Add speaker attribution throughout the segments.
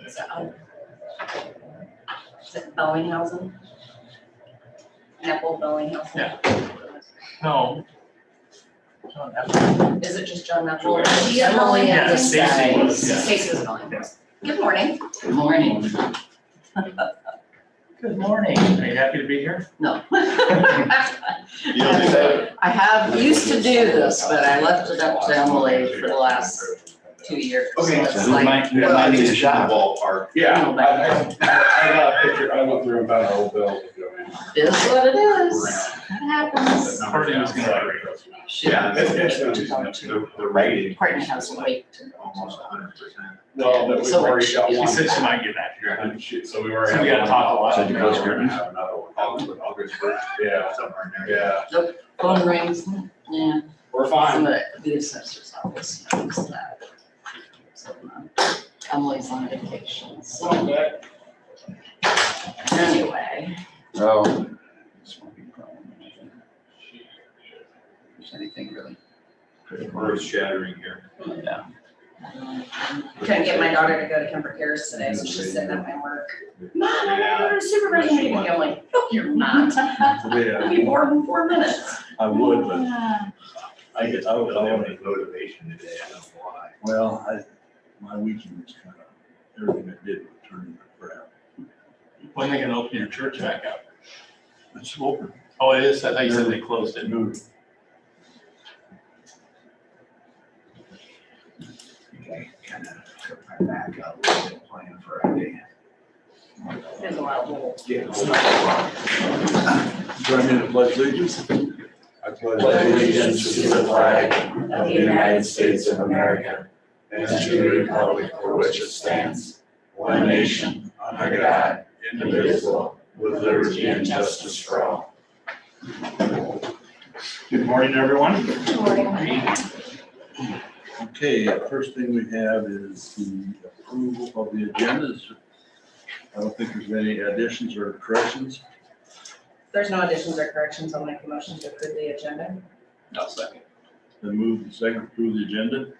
Speaker 1: It's, um, is it Bellinghausen? Neville Bellinghausen?
Speaker 2: No. John F.
Speaker 1: Is it just John Neville?
Speaker 2: Julia.
Speaker 3: Yeah,
Speaker 1: Emily
Speaker 3: Yeah,
Speaker 1: and
Speaker 2: Stacy was, yeah.
Speaker 1: Stacy was Bellinghausen. Good morning.
Speaker 2: Good morning. Good morning. Are you happy to be here?
Speaker 3: No.
Speaker 4: You don't do that?
Speaker 3: I have, used to do this, but I left it up to Emily for the last two years.
Speaker 4: Okay.
Speaker 3: It's like,
Speaker 4: Well, I think it's in the ballpark.
Speaker 5: Yeah,
Speaker 3: No, but-
Speaker 5: I, I, I got a picture, I looked through and found an old bill. you know, and
Speaker 3: it is what it is.
Speaker 5: around.
Speaker 3: It happens.
Speaker 5: The
Speaker 2: Party was gonna-
Speaker 5: number-
Speaker 4: Yeah,
Speaker 5: it's-
Speaker 4: it's,
Speaker 5: it's-
Speaker 4: it's, the, the rating.
Speaker 3: Partner has to wait to
Speaker 4: Almost a hundred percent.
Speaker 5: Well, but we've
Speaker 3: So
Speaker 5: already got
Speaker 3: she-
Speaker 2: She
Speaker 5: one.
Speaker 2: said she might get back.
Speaker 5: Yeah, and she- So we were.
Speaker 2: So we gotta talk a lot.
Speaker 5: So
Speaker 4: Said you close
Speaker 5: we're
Speaker 4: curtains?
Speaker 5: gonna have another one.
Speaker 4: August, August first,
Speaker 5: Yeah,
Speaker 4: somewhere in there.
Speaker 5: yeah,
Speaker 3: phone rings. Yeah,
Speaker 5: we're
Speaker 3: I'm
Speaker 5: fine.
Speaker 3: gonna do this assessor's office. notice that. So, um, Emily's on vacation, so
Speaker 5: Okay.
Speaker 3: anyway,
Speaker 4: Oh.
Speaker 6: anything really.
Speaker 4: Earth shattering here.
Speaker 3: um,
Speaker 1: Couldn't get my daughter to go to Kemper Cares today, so she's sitting at my work. Mom, I gotta go to supervisor meeting. I'm like, no, you're not. I'll
Speaker 4: Yeah,
Speaker 1: be bored in four minutes.
Speaker 4: I would, but I guess I don't have any motivation today, I don't know why.
Speaker 6: Well, I, my weekend was kind of, everything I did was turning to crap.
Speaker 2: When they gonna open your church back up?
Speaker 6: It's open,
Speaker 2: Oh, it is. I thought you said they closed it.
Speaker 6: moved.
Speaker 4: I kind of took my back out, playing Friday.
Speaker 1: There's a lot of little
Speaker 6: Join me in the pledge allegiance.
Speaker 4: I pledge
Speaker 6: allegiance to the flag
Speaker 1: of the United States of
Speaker 4: America
Speaker 6: and to the republic for which it stands, one nation, under God, indivisible, with liberty and justice for all.
Speaker 5: Good morning, everyone.
Speaker 6: Okay, uh, first thing we have is the approval of the agendas. I don't think there's any additions or corrections.
Speaker 1: There's no additions or corrections. I'll make a motion to approve the agenda.
Speaker 2: No, second.
Speaker 6: Then move the second approve the agenda.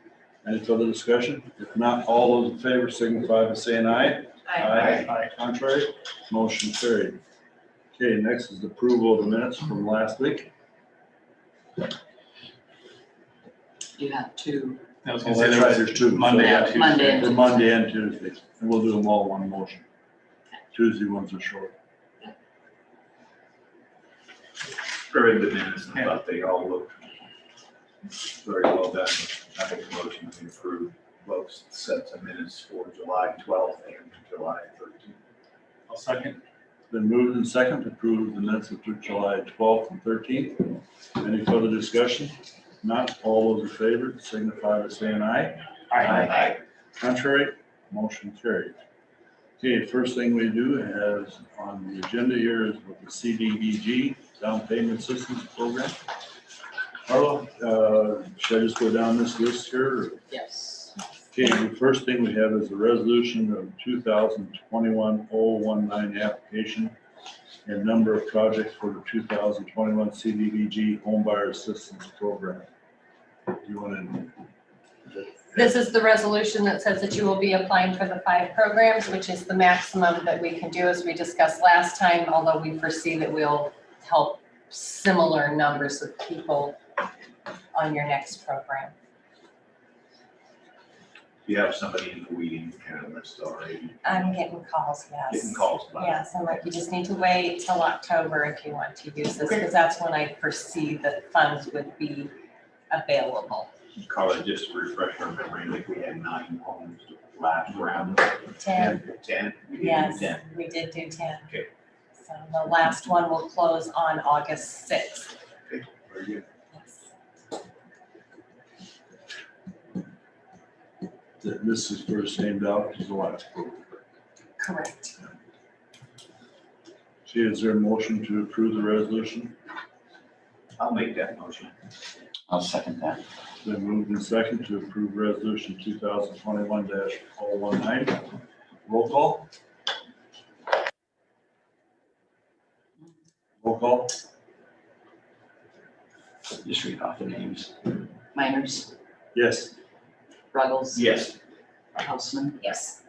Speaker 6: Any further discussion? If not, all those in favor signify by saying aye.
Speaker 2: Aye.
Speaker 6: Contrary, motion carried. Okay, next is approval of the minutes from last week.
Speaker 3: you have two.
Speaker 2: I was
Speaker 6: Oh,
Speaker 2: gonna say
Speaker 6: that's
Speaker 2: there
Speaker 6: right,
Speaker 2: was
Speaker 6: there's two.
Speaker 2: Monday
Speaker 3: Yeah,
Speaker 2: and Tuesday.
Speaker 3: Monday.
Speaker 6: The Monday and Tuesday, and we'll do them all in one motion. Tuesday ones are short.
Speaker 4: Read the minutes and thought they all looked very well done. I make a motion to approve both sets of minutes for July twelfth and July thirteenth.
Speaker 2: I'll second.
Speaker 6: Then moved and second to approve the minutes of July twelfth and thirteenth. Any further discussion? Not all those in favor signify by saying aye.
Speaker 4: Aye.
Speaker 6: Contrary, motion carried. Okay, first thing we do is on the agenda here is with the CDBG, Down Payment Assistance Program. Carla, uh, should I just go down this list here? or-
Speaker 3: Yes.
Speaker 6: Okay, the first thing we have is the resolution of 2021-019 application and number of projects for the two thousand twenty-one CDBG Home Buyer Assistance Program. Do you want to?
Speaker 7: This is the resolution that says that you will be applying for the five programs, which is the maximum that we can do, as we discussed last time, although we foresee that we'll help similar numbers of people on your next program.
Speaker 4: You have somebody in the weeding kind of list already,
Speaker 7: I'm getting calls, Um, yes.
Speaker 4: getting calls by.
Speaker 7: Yes, I'm like, you just need to wait till October if you want to use this, because that's when I foresee that funds would be available.
Speaker 4: Carla, just to refresh our memory, like we had nine homes last round.
Speaker 7: Ten,
Speaker 4: Ten? We did
Speaker 7: yes,
Speaker 4: Ten.
Speaker 7: we did do ten.
Speaker 4: Okay.
Speaker 7: So the last one will close on August sixth.
Speaker 4: Very good.
Speaker 6: that this is first named out as the last approval.
Speaker 7: Correct.
Speaker 6: See, is there a motion to approve the resolution?
Speaker 4: I'll make that motion.
Speaker 5: I'll second that.
Speaker 6: Then moved in second to approve resolution two thousand twenty-one 19 Roll call? Roll call?
Speaker 5: Just read off the names.
Speaker 3: Miners,
Speaker 6: Yes.
Speaker 3: Ruggles,
Speaker 4: Yes.
Speaker 3: Houseman,
Speaker 1: Yes.